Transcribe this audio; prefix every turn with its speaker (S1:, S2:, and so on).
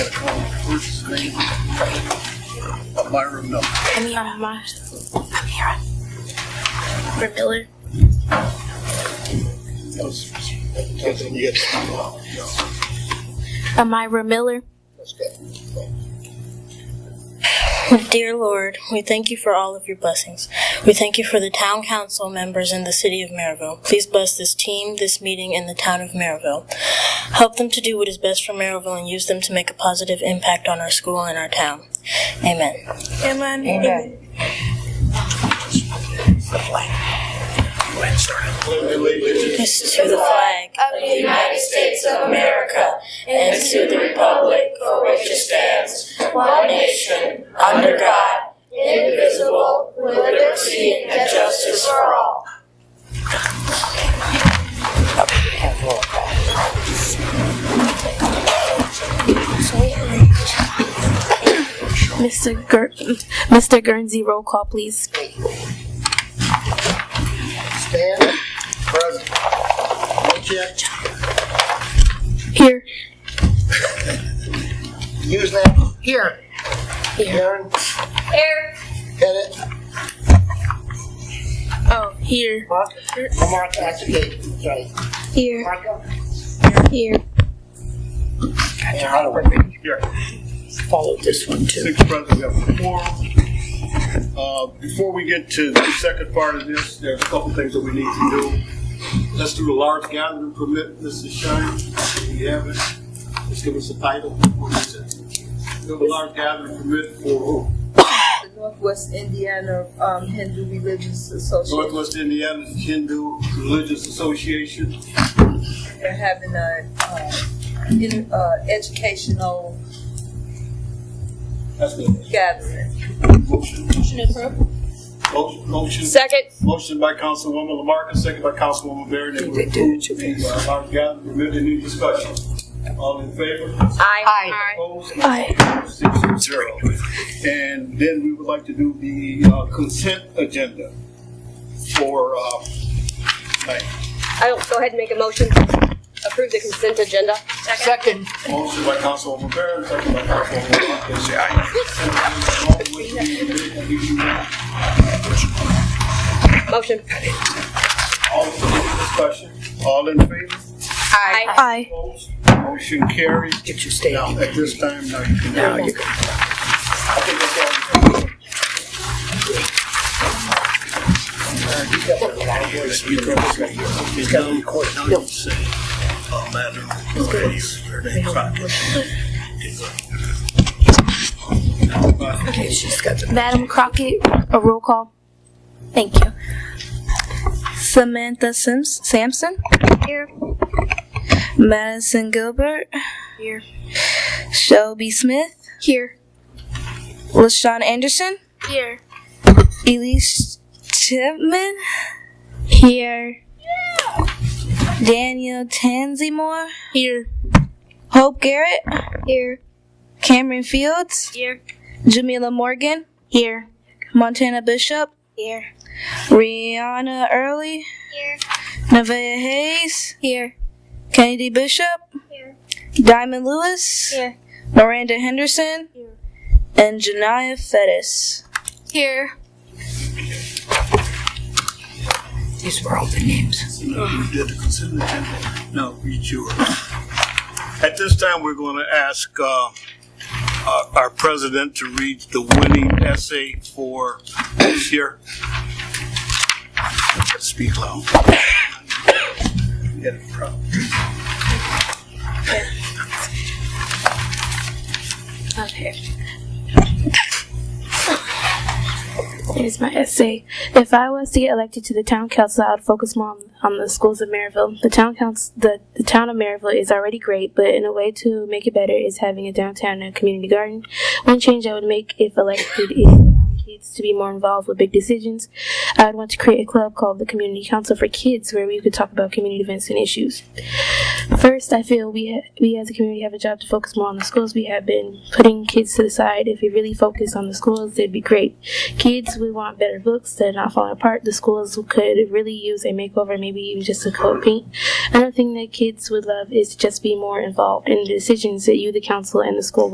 S1: first name of my room number.
S2: I'm here. I'm here. I'm here. Brett Miller.
S1: That was something you had to do. No,
S2: Amira Miller.
S1: that's good.
S3: Dear Lord, we thank you for all of your blessings. We thank you for the town council members in the city of Maryville. Please bless this team, this meeting, and the town of Maryville. Help them to do what is best for Maryville and use them to make a positive impact on our school and our town. Amen.
S2: Amen.
S3: Allegiance to the flag
S4: of the United States of America and to the republic for which it stands, one nation, under God, indivisible, with liberty and justice for all.
S2: Mr. Gur- Mr. Guernsey, roll call, please.
S5: Stand. Present. Wojcik.
S2: Here.
S5: Usenet. Here. Aaron.
S4: Here.
S5: Pettit.
S2: Oh, here.
S5: Mark. Mark, that's okay. Sorry.
S2: Here.
S5: Marco.
S2: Here.
S5: And Holloway.
S1: Here.
S5: Follow this one too.
S1: Six present, we have four. Uh, Before we get to the second part of this, there's a couple things that we need to do. Let's do the large gathering permit, Mrs. Shine, we have it. Let's give us a title. What is it? Do the large gathering permit for who?
S6: the Northwest Indiana um, Hindu Religious Association.
S1: Northwest Indiana Hindu Religious Association.
S6: They're having a uh, in, uh, educational
S1: That's the
S6: gathering.
S1: motion. Motion, motion.
S4: Second.
S1: Motion by Councilwoman Lamarcus, second by Councilwoman Barron. That we approve the uh, large gathering permit. Any discussion? All in favor?
S4: Aye.
S1: Opposed?
S2: Aye.
S1: Six to zero. And then we would like to do the uh, consent agenda for, uh, tonight.
S7: I'll go ahead and make a motion to approve the consent agenda.
S1: motion by Councilwoman Barron, second by Councilwoman Marcus. Say aye.
S7: Motion.
S1: All in favor, discussion, all in favor?
S7: Aye.
S2: Aye.
S1: Opposed? Motion carries. Get your state. Now, at this time, now you can. Now you can. I think that's all. we can do.
S5: He's got a record.
S2: Madam Crockett, a roll call. Thank you. Samantha Sims- Sampson. Here. Madison Gilbert. Here. Shelby Smith. Here. LaShawn Anderson. Here. Elise Chipman. Here. Daniel Tanzimore. Here. Hope Garrett. Here. Cameron Fields. Jamila Morgan. Here. Montana Bishop. Here. Rihanna Early. Here. Nevaeh Hayes. Here. Kennedy Bishop.
S4: Here.
S2: Diamond Lewis.
S4: Here.
S2: Miranda Henderson. Here. And Janiyah Fettis. Here.
S1: No, you did the consent agenda. Now read yours. At this time, we're going to ask uh, our our president to read the winning essay for this year. Speak loud. You got a problem.
S2: Okay. Here's my essay. If I was to get elected to the town council, I would focus more on, on the schools of Maryville. The town council, the, the town of Maryville is already great, but in a way to make it better is having a downtown and a community garden. One change I would make if elected is allowing kids to be more involved with big decisions. I would want to create a club called the Community Council for Kids, where we could talk about community events and issues. First, I feel we ha- we as a community have a job to focus more on the schools. We have been putting kids to the side. If we really focus on the schools, it'd be great. Kids, we want better books that are not falling apart. The schools could really use a makeover, maybe even just a coat paint. Another thing that kids would love is to just be more involved in the decisions that you, the council, and the school